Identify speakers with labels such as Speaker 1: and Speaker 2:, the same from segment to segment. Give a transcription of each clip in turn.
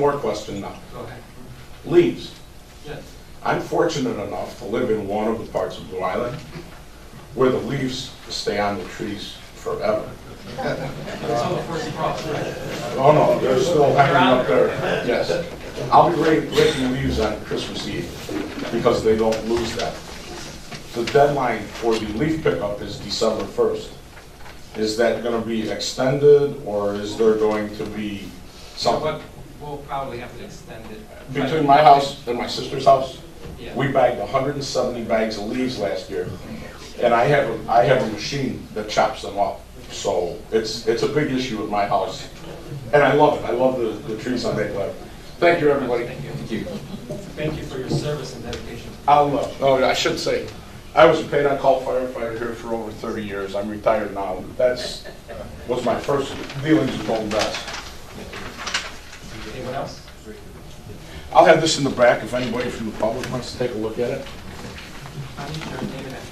Speaker 1: More question now.
Speaker 2: Go ahead.
Speaker 1: Leaves.
Speaker 2: Yes.
Speaker 1: I'm fortunate enough to live in one of the parts of Blue Island where the leaves stay on the trees forever.
Speaker 2: That's how the first problem.
Speaker 1: Oh, no, they're still hanging up there, yes. I'll be rake- raking leaves on Christmas Eve because they don't lose that. The deadline for the leaf pickup is December 1st. Is that going to be extended or is there going to be
Speaker 2: So
Speaker 1: something?
Speaker 2: what, we'll probably have to extend it.
Speaker 1: Between my house and my sister's house,
Speaker 2: Yeah.
Speaker 1: we bagged 170 bags of leaves last year. And I have, a I have a machine that chops them up. So it's, it's a big issue at my house. And I love it. I love the, the trees on that Lake. Thank you, everybody.
Speaker 2: Thank you. Thank you. Thank you for your service and dedication.
Speaker 1: I'll, uh, oh, I should say, I was a paid-on-call firefighter here for over 30 years. I'm retired now. That's, was my first dealings with Golden Best.
Speaker 2: Anyone else?
Speaker 1: I'll have this in the back if anybody from the public wants to take a look at it.
Speaker 2: I need your name and address.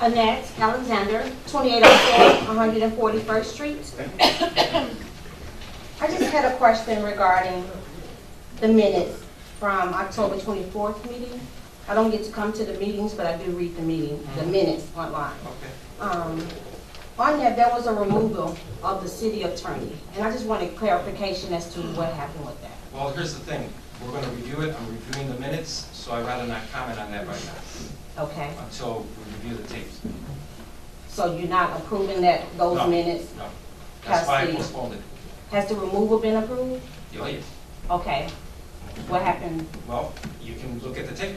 Speaker 3: Annette Alexander, 2804 141st Street. I just had a question regarding the minutes from October 24th meeting. I don't get to come to the meetings, but I do read the meeting, the minutes online.
Speaker 2: Okay.
Speaker 3: Um, On that, there was a removal of the city attorney, and I just wanted clarification as to what happened with that.
Speaker 2: Well, here's the thing. We're going to review it. I'm reviewing the minutes, so I'd rather not comment on that right now
Speaker 3: Okay?
Speaker 2: until we review the tapes.
Speaker 3: So you're not approving that, those
Speaker 2: No.
Speaker 3: minutes?
Speaker 2: No. That's why I
Speaker 3: Trustee.
Speaker 2: postponed it.
Speaker 3: Has the removal been approved?
Speaker 2: Oh, yes.
Speaker 3: Okay. What happened?
Speaker 2: Well, you can look at the tape.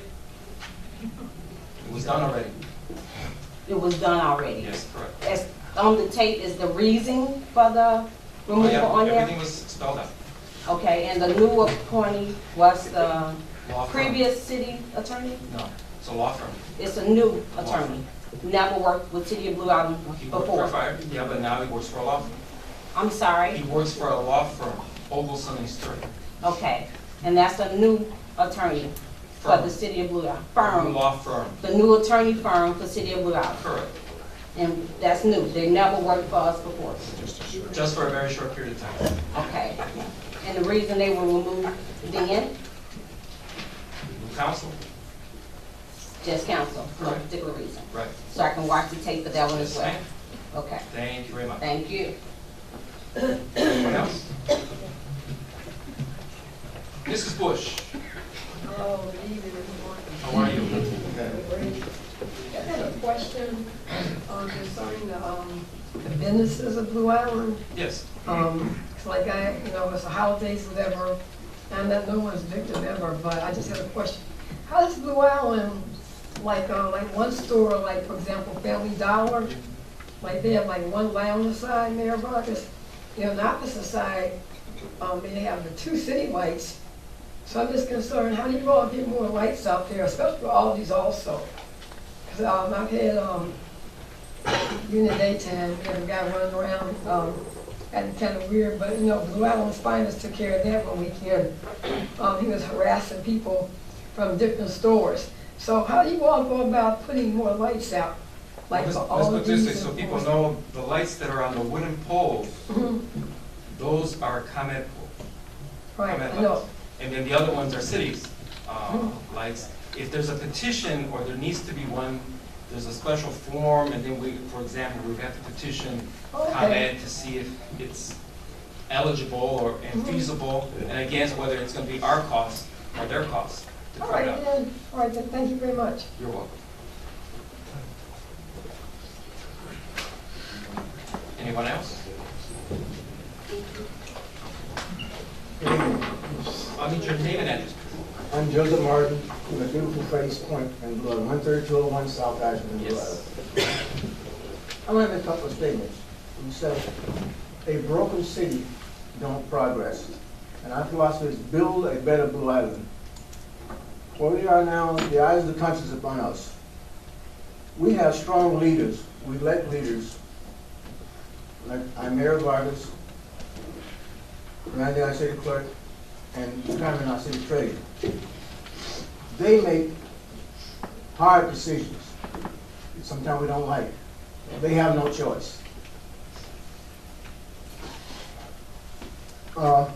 Speaker 2: It was done already.
Speaker 3: It was done already?
Speaker 2: Yes, correct.
Speaker 3: as on the tape is the reason for the
Speaker 2: Oh,
Speaker 3: removal
Speaker 2: yeah,
Speaker 3: on
Speaker 2: everything
Speaker 3: there?
Speaker 2: was spelled out.
Speaker 3: Okay, and the new appointee was the
Speaker 2: Law firm.
Speaker 3: previous city attorney?
Speaker 2: No, it's a law firm.
Speaker 3: It's a new attorney, never worked with City of Blue Island
Speaker 2: He worked for a
Speaker 3: before.
Speaker 2: fire, yeah, but now he works for a law firm.
Speaker 3: I'm
Speaker 2: He
Speaker 3: sorry,
Speaker 2: works for a law firm, Ogleson and Stern.
Speaker 3: okay. And that's a new attorney for the
Speaker 2: Firm.
Speaker 3: City of Blue Island,
Speaker 2: A
Speaker 3: firm,
Speaker 2: Law firm,
Speaker 3: the new attorney firm for City of Blue Island.
Speaker 2: correct,
Speaker 3: And that's new, they never worked for us before,
Speaker 2: just for a very short period of time.
Speaker 3: okay. And the reason they were removed then,
Speaker 2: New counsel,
Speaker 3: just counsel, no
Speaker 2: Correct.
Speaker 3: particular reason.
Speaker 2: right.
Speaker 3: so I can watch the tape for that one as well. Okay,
Speaker 2: Thank you very much.
Speaker 3: thank you.
Speaker 2: Anyone else? Mrs. Bush,
Speaker 4: Oh, leave it in
Speaker 2: how are you?
Speaker 4: the morning. I had a question um, concerning the, um, the businesses of Blue Island.
Speaker 2: Yes,
Speaker 4: Um, it's like I, you know, it's the holidays, whatever, and that no one's victim ever, but I just had a question. How does Blue Island, like, uh, like one store, like, for example, Family Dollar, like they have like one lounge side, Mayor Vargas, you know, not the side, um, they have the two city lights. So I'm just concerned, how do you all get more lights out there, especially for all these also? Cause, um, I've had, um, during the daytime, we had a guy running around, um, and kind of weird, but, you know, Blue Island Finest took care of that one weekend. Um, he was harassing people from different stores. So how do you all go about putting more lights out? Like
Speaker 2: Let's
Speaker 4: for
Speaker 2: let's
Speaker 4: all
Speaker 2: put
Speaker 4: of
Speaker 2: this
Speaker 4: these.
Speaker 2: way, so people
Speaker 4: stores?
Speaker 2: know the lights that are on the wooden poles,
Speaker 4: Mm-hmm.
Speaker 2: those are comment,
Speaker 4: Right,
Speaker 2: comment
Speaker 4: I know,
Speaker 2: lights. And then the other ones are cities, uh, lights. If there's a petition, or there needs to be one, there's a special form, and then we, for example, we have to petition
Speaker 4: Okay.
Speaker 2: ComEd to see if it's eligible or
Speaker 4: Mm-hmm.
Speaker 2: and feasible, and against whether it's gonna be our cost or their cost to
Speaker 4: all
Speaker 2: put
Speaker 4: right
Speaker 2: it up.
Speaker 4: then, all right then, thank you very much.
Speaker 2: You're welcome. Anyone else? I'll need your name and address.
Speaker 5: I'm Joseph Martin from the beautiful Freddy's Point in Blue Island, 13201 South Ashland, Blue
Speaker 2: Yes.
Speaker 5: Island. I want to make a couple of statements. You said, "A broken city don't progress." And our philosophy is build a better Blue Island. Where we are now, the eyes of the country is upon us. We have strong leaders, we elect leaders. Like I'm Mayor Vargas, Randy, our city clerk, and Carmen, our city treasurer. They make hard decisions, sometimes we don't like. They have no choice. Uh,